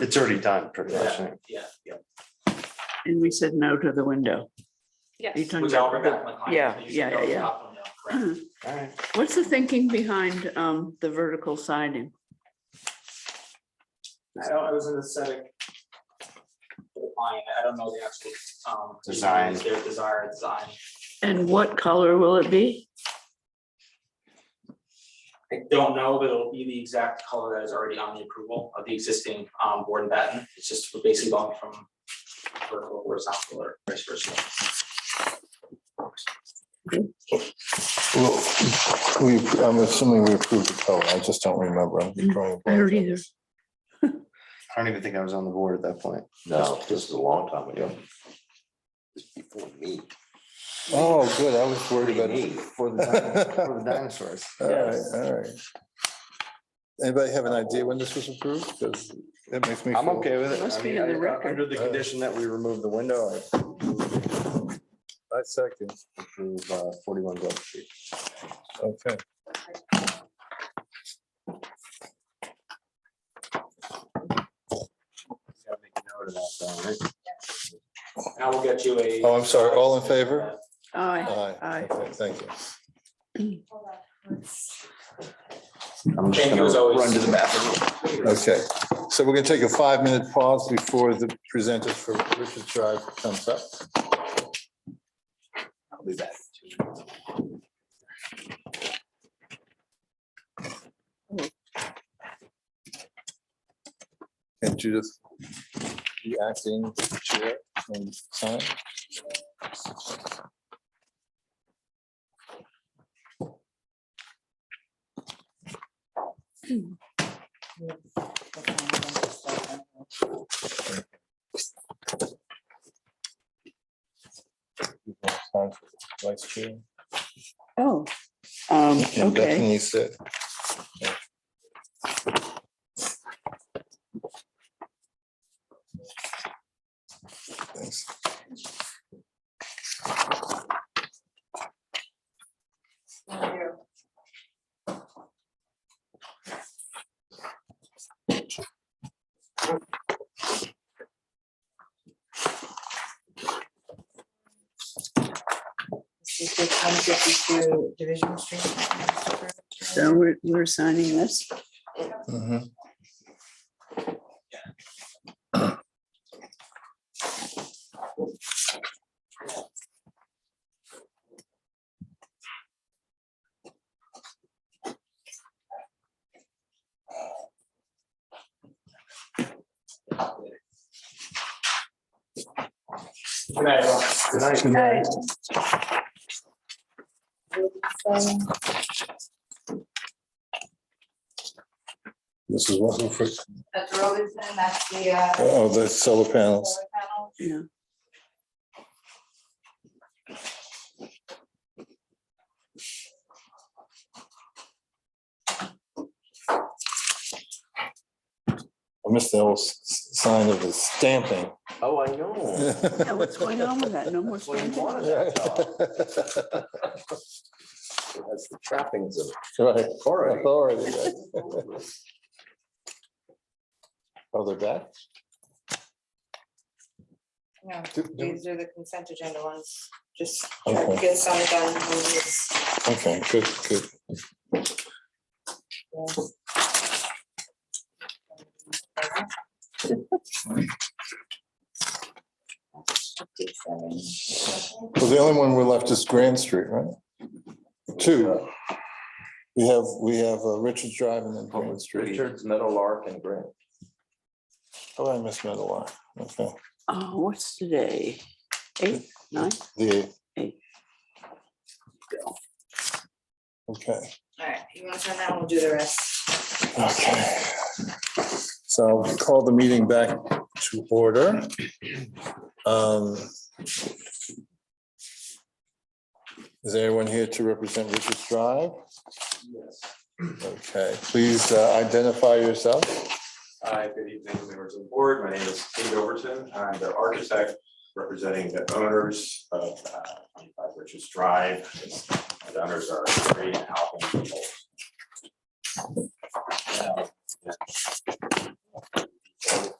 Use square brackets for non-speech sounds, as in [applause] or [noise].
It's already done, pretty much. Yeah, yeah, yeah. And we said no to the window. Are you Yes, talking Which about I'll bring back my client. Yeah, You should yeah, yeah, know the yeah. top one now, correct. All right. [clears throat] What's the thinking behind um the vertical siding? So I was in the aesthetic. for the client. I don't know the actual, um. Design. Their desired design. And what color will it be? I don't know, but it'll be the exact color that is already on the approval of the existing um board and batten. It's just we're basically going from vertical horizontal or vice versa. Well, we, I'm assuming we approved the code, I just don't remember. I'm drawing Mm, a I don't blank. either. I don't even think I was on the board at that point. No, this is a long time ago. It's before me. Oh, good, I was worried about Me. it. For the dinosaurs- for the [laughs] dinosaurs. All right, all right. Anybody have an idea when this was approved? Because it makes me. I'm feel- okay with it. It must I be mean, in the I- I- record. Under the condition that we remove the window, I I second, approve uh, forty-one Grove Street. okay. Gotta make a note of that, though, right? And I will get you a. Oh, I'm sorry, all in favor? Aye. Aye. Aye. Okay, Thank you. I'm just Thank you gonna as always. Run to the bathroom. Okay, so we're gonna take a five-minute pause before the presenters for Richard Drive comes up. I'll be back. And Judith, you acting chair and sign? You want to sign for Vice chair. Oh, um, And okay. Bethany said. Thanks. This is the ten fifty-two Division Street. So we're we're signing this. Mhm. Good night, everyone. This is what, for- That's Robinson, that's the, uh, oh, the solar panels. solar panel. Yeah. I missed the old s- s- sign of the stamping. Oh, I know. Yeah, [laughs] What's going on with that? No more Well, you stamping? wanted [laughs] that job. [laughs] That's the trappings of Right, authority. authority. right. Oh, they're back? No, Do- do- these are the consent agenda ones, just try to Okay, get some done. when it's- okay, good, good. Well, the only one we're left is Grand Street, right? Two. We have, we have uh, Richards Drive and then Grand Street. Richards, Meadowlark and Grant. Oh, I missed another one. Okay, Oh, what's today? Eight, nine? the. Eight. Okay. All right, you want to sign that, one, we'll do the rest. Okay. So I'll call the meeting back to order. Um, Is anyone here to represent Richards Drive? Yes. Okay, please uh, identify yourself. Hi, good evening, members of the board. My name is Steve Overton. I'm the architect representing the owners of uh, 25 Richards Drive. And The owners are Gary and Alvin. People. Uh, yeah.